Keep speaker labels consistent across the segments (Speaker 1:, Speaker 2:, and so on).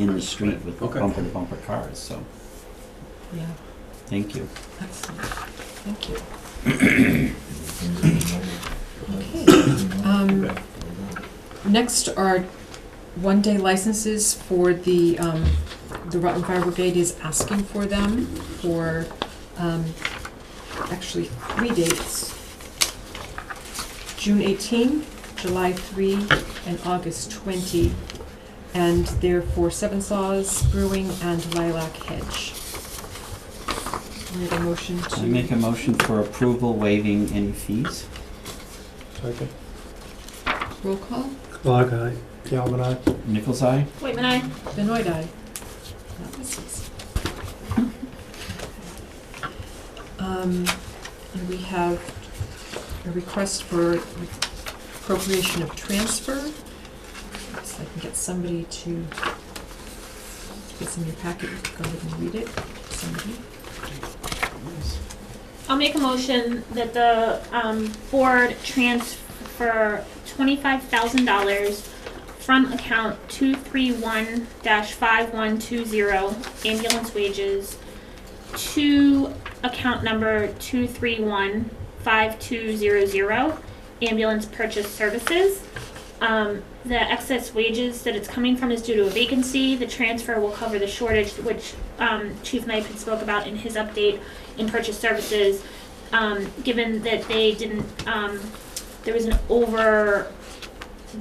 Speaker 1: in the street with
Speaker 2: Okay.
Speaker 1: bumper to bumper cars, so,
Speaker 3: Yeah,
Speaker 1: thank you.
Speaker 3: excellent. Thank you. Okay, um, next are one-day licenses for the, um, the Rutland Fire Brigade is asking for them for, um, actually three dates. June eighteen, July three, and August twenty. And they're for Seven Saws Brewing and Lilac Hedge. We have a motion to.
Speaker 1: I make a motion for approval waiving any fees.
Speaker 4: Second.
Speaker 3: Roll call,
Speaker 4: Clark, aye. Galvin, aye.
Speaker 1: Nichols eye?
Speaker 5: Wait, man, I,
Speaker 3: Benoit aye. That was six. Um, and we have a request for appropriation of transfer. So I can get somebody to, it's in your packet, you can go ahead and read it, somebody.
Speaker 5: I'll make a motion that the, um, board transfer twenty-five thousand dollars from account two three one dash five one two zero ambulance wages to account number two three one five two zero zero ambulance purchase services. Um, the excess wages that it's coming from is due to a vacancy. The transfer will cover the shortage, which, um, Chief Knight had spoke about in his update in purchase services, um, given that they didn't, um, there was an over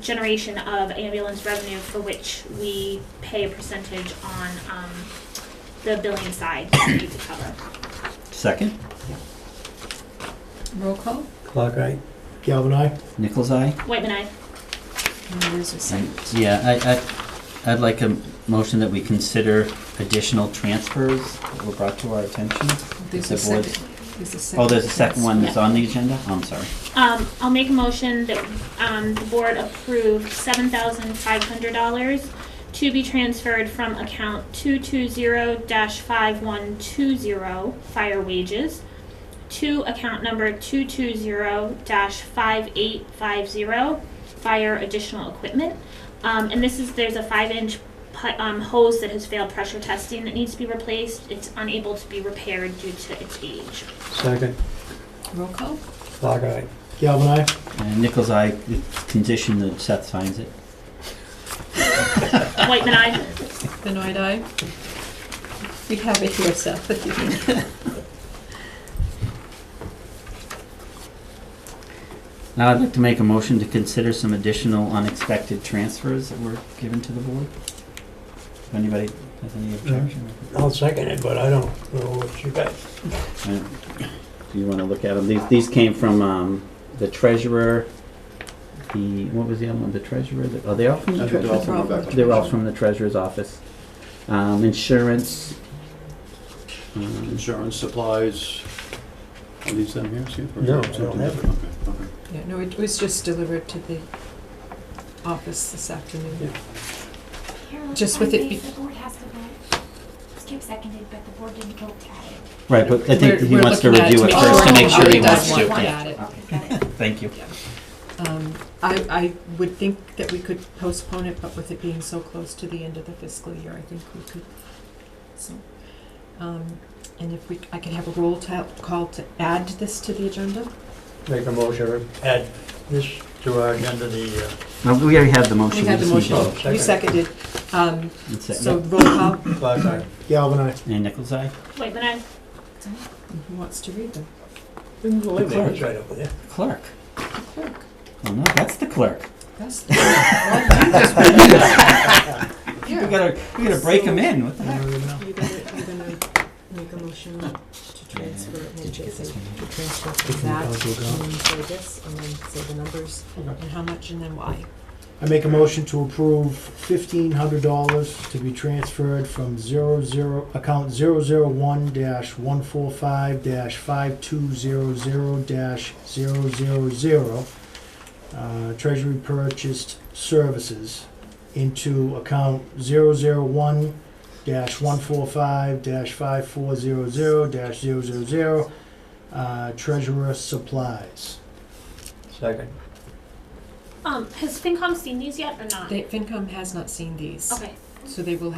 Speaker 5: generation of ambulance revenue for which we pay a percentage on, um, the billing side that we need to cover.
Speaker 1: Second?
Speaker 3: Roll call,
Speaker 4: Clark, aye. Galvin, aye.
Speaker 1: Nichols eye?
Speaker 5: Whitman, I,
Speaker 3: and there's a second.
Speaker 1: Yeah, I, I, I'd like a motion that we consider additional transfers that were brought to our attention.
Speaker 3: There's
Speaker 1: the
Speaker 3: a
Speaker 1: board-
Speaker 3: second. There's a second.
Speaker 1: Oh, there's a second one that's
Speaker 5: Yeah.
Speaker 1: on the agenda? Oh, I'm sorry.
Speaker 5: um, I'll make a motion that, um, the board approve seven thousand five hundred dollars to be transferred from account two two zero dash five one two zero fire wages to account number two two zero dash five eight five zero fire additional equipment. Um, and this is, there's a five inch pu- um, hose that has failed pressure testing that needs to be replaced. It's unable to be repaired due to its age.
Speaker 4: Second.
Speaker 3: Roll call,
Speaker 4: Clark, aye. Galvin, aye.
Speaker 1: And Nichols eye, condition that Seth signs it.
Speaker 5: Whitman, I.
Speaker 3: Benoit aye. We have it here, Seth, if you
Speaker 1: Now I'd like to make a motion to consider some additional unexpected transfers that were given to the board. If anybody has any objection.
Speaker 4: I'll second it, but I don't know what you got.
Speaker 1: Uh, Do you want to look at them? These, these came from um, the treasurer, the, what was the other one, the treasurer? the- Oh, they all from the
Speaker 3: they're
Speaker 1: treasurer.
Speaker 3: all from the back.
Speaker 1: They're all from the treasurer's office. Um, Insurance.
Speaker 4: Mm-hmm.
Speaker 1: um,
Speaker 6: Insurance supplies, are these them here, see? or-
Speaker 4: No, I don't have
Speaker 6: Okay, okay.
Speaker 3: Yeah, no, it was just delivered to the office this afternoon. Just with it be-
Speaker 7: The board has to vote. Skip seconded, but the board didn't vote to add it.
Speaker 1: Right, but I
Speaker 3: We're-
Speaker 1: think he
Speaker 3: we're
Speaker 1: wants to
Speaker 3: looking at
Speaker 1: review it
Speaker 3: to
Speaker 1: first to
Speaker 3: sure
Speaker 1: make sure he
Speaker 3: everybody
Speaker 1: wants
Speaker 3: Oh, does
Speaker 1: to.
Speaker 3: want
Speaker 1: Yeah.
Speaker 3: it.
Speaker 7: Got it.
Speaker 1: Thank you.
Speaker 3: Um, I, I would think that we could postpone it, but with it being so close to the end of the fiscal year, I think we could, so. um, And if we, I could have a roll ta- call to add this to the agenda?
Speaker 4: Make a motion to add this to our agenda, the, uh,
Speaker 1: No, We already have the motion.
Speaker 3: We had the
Speaker 1: just need to
Speaker 3: motion,
Speaker 1: vote.
Speaker 3: you
Speaker 4: Second.
Speaker 3: seconded, um,
Speaker 1: That's it.
Speaker 3: so roll call,
Speaker 4: Clark, aye. Galvin, aye.
Speaker 1: And Nichols eye?
Speaker 5: Whitman, I.
Speaker 3: who wants to read them?
Speaker 4: Clark's right over there.
Speaker 1: Clerk.
Speaker 3: The clerk.
Speaker 1: Oh, no, that's the clerk.
Speaker 3: That's the clerk.
Speaker 1: We
Speaker 3: Yeah.
Speaker 1: gotta, we gotta break him in. What the heck?
Speaker 3: You're gonna, you're gonna make a motion to transfer, and then
Speaker 1: Did you get this
Speaker 3: say-
Speaker 1: one?
Speaker 3: to transfer from
Speaker 4: Different
Speaker 3: that, and
Speaker 4: council account.
Speaker 3: then say this, and then say the numbers,
Speaker 4: Okay.
Speaker 3: and how much, and then why.
Speaker 4: I make a motion to approve fifteen hundred dollars to be transferred from zero zero, account zero zero one dash one four five dash five two zero zero dash zero zero zero, uh, treasury purchased services into account zero zero one dash one four five dash five four zero zero dash zero zero zero, uh, treasurer supplies. Second.
Speaker 5: Um, has FinCom seen these yet or not?
Speaker 3: They, FinCom has not seen these,
Speaker 5: okay.
Speaker 3: so they will have